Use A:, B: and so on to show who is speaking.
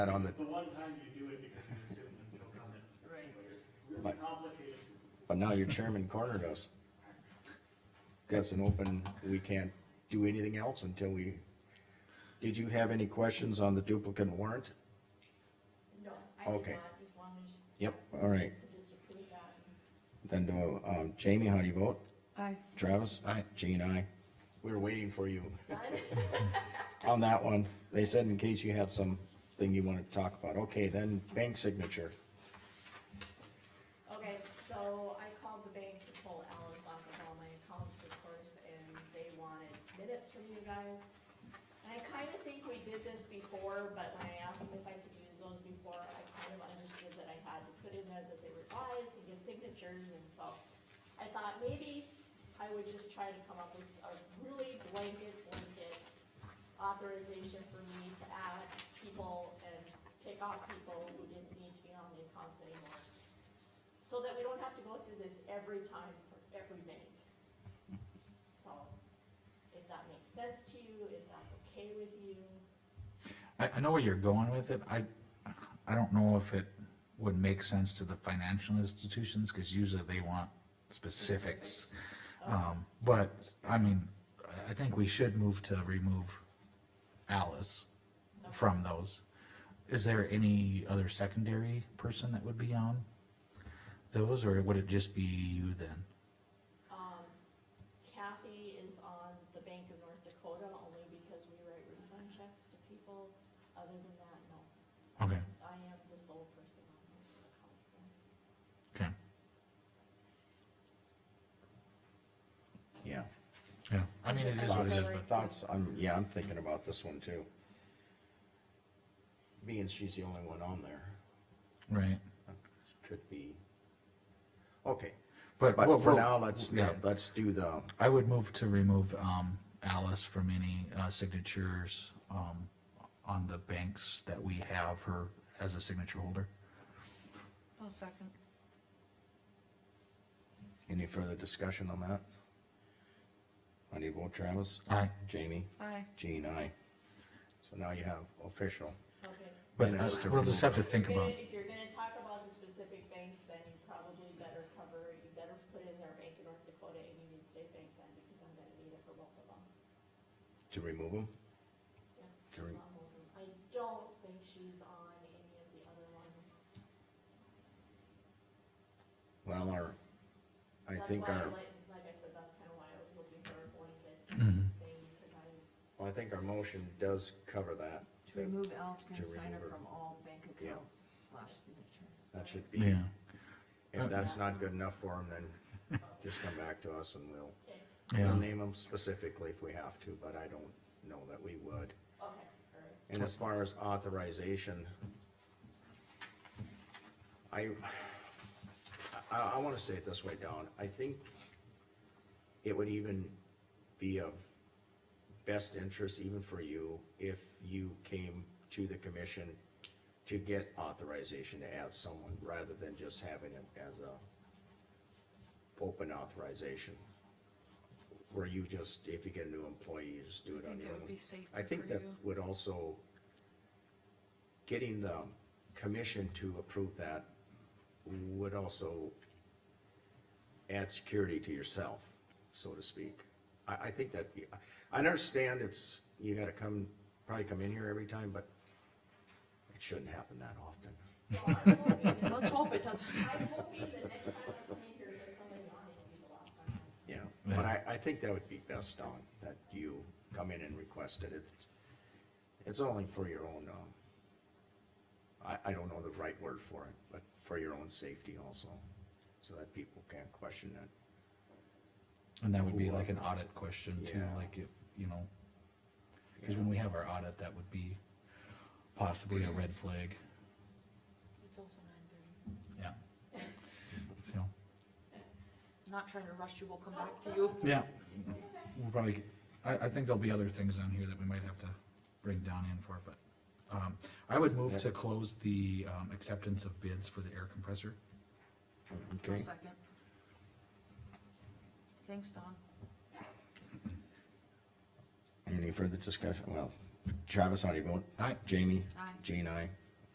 A: that on the,
B: The one time you do it because you assume there's no comment,
C: Right.
B: it's really complicated.
A: but now your chairman cornered us. That's an open, we can't do anything else until we, did you have any questions on the duplicate warrant?
D: No, I did
A: Okay.
D: not, as long as
A: Yep, all right,
D: you just approve that.
A: then do, um, Jamie, how do you vote?
C: Aye.
A: Travis?
E: Aye.
A: Jean, aye. We were waiting for you
D: Done?
A: on that one. They said in case you had something you wanted to talk about. Okay, then bank signature.
D: Okay, so I called the bank to pull Alice off of all my accounts, of course, and they wanted minutes from you guys. And I kinda think we did this before, but when I asked them if I could use those before, I kind of understood that I had to put in there that they were revised to get signatures, and so I thought maybe I would just try to come up with a really blanket, blanket authorization for me to add people and take off people who didn't need to be on the accounts anymore so that we don't have to go through this every time for every bank. So, if that makes sense to you, if that's okay with you,
E: I, I know where you're going with it, I, I don't know if it would make sense to the financial institutions, cause usually they want specifics. Um, but, I mean, I- I think we should move to remove Alice
D: Um,
E: from those. Is there any other secondary person that would be on those, or would it just be you then?
D: um, Kathy is on the Bank of North Dakota only because we write refund checks to people. Other than that, no,
E: Okay,
D: I am the sole person on most of the accounts then.
E: okay,
A: Yeah.
E: yeah, I mean, it is what it is, but,
A: Thoughts, I'm, yeah, I'm thinking about this one too. Being she's the only one on there,
E: right,
A: could be. Okay,
E: but. we'll-
A: but for
E: we'll-
A: now, let's,
E: yeah.
A: let's do the,
E: I would move to remove, um, Alice from any, uh, signatures, um, on the banks that we have her as a signature holder.
C: I'll second.
A: any further discussion on that? How do you vote, Travis?
E: Aye.
A: Jamie?
C: Aye.
A: Jean, aye. So now you have official.
D: Okay.
E: But
A: And
E: uh,
A: us to
E: we'll just have
A: remove
E: to think
D: If you're
E: about,
D: gonna- If you're gonna talk about the specific banks, then you probably better cover, you better put in their Bank of North Dakota and Union State Bank then, because I'm gonna need it for both of them.
A: To remove them?
D: Yeah.
A: To re-
D: Um, I don't think she's on any of the other ones.
A: Well, our, I
D: That's
A: think
D: why
A: our,
D: Like like I said, that's kinda why I was looking for a blanket
E: mm-hmm,
D: thing, because I,
A: well, I think our motion does cover that.
C: To remove Alice
A: To remove
C: Steiner
A: her.
C: from all bank
A: Yeah.
C: accounts slash signatures.
A: That should be,
E: yeah, Uh,
A: if that's not good enough for him, then just come back to us and we'll,
D: okay,
E: yeah,
A: we'll name them specifically if we have to, but I don't know that we would.
D: okay, all right.
A: And as far as authorization, I, I, I wanna say it this way, Don, I think it would even be of best interest even for you if you came to the commission to get authorization to add someone rather than just having it as a open authorization. Where you just, if you get a new employee, you just do it
C: I
A: on
C: think
A: your
C: it
A: own.
C: would be safer
A: I think
C: for
A: that
C: you.
A: would also, getting the commission to approve that would also add security to yourself, so to speak. I, I think that, I understand it's, you gotta come, probably come in here every time, but it shouldn't happen that often.
D: Well, I'm hoping that-
C: Let's hope it doesn't.
D: I'm hoping that next time I come in here, there's somebody on it, it'll be the last time.
A: Yeah, but I, I think that would be best, Don, that you come in and request it. It's, it's only for your own, um, I, I don't know the right word for it, but for your own safety also, so that people can't question it.
E: and that would be like an audit question too,
A: Yeah.
E: like if, you know, cause when we have our audit, that would be possibly a red flag,
C: It's also nine
E: yeah.
C: thirty.
E: So,
C: Not trying to rush you, we'll come back to you.
E: yeah, we'll probably, get- I, I think there'll be other things on here that we might have to bring Don in for, but, um, I would move to close the, um, acceptance of bids for the air compressor.
C: I'll second. Thanks, Don.
A: Any further discussion? Well, Travis, how do you vote?
E: Aye.
A: Jamie?
C: Aye.
A: Jean, aye.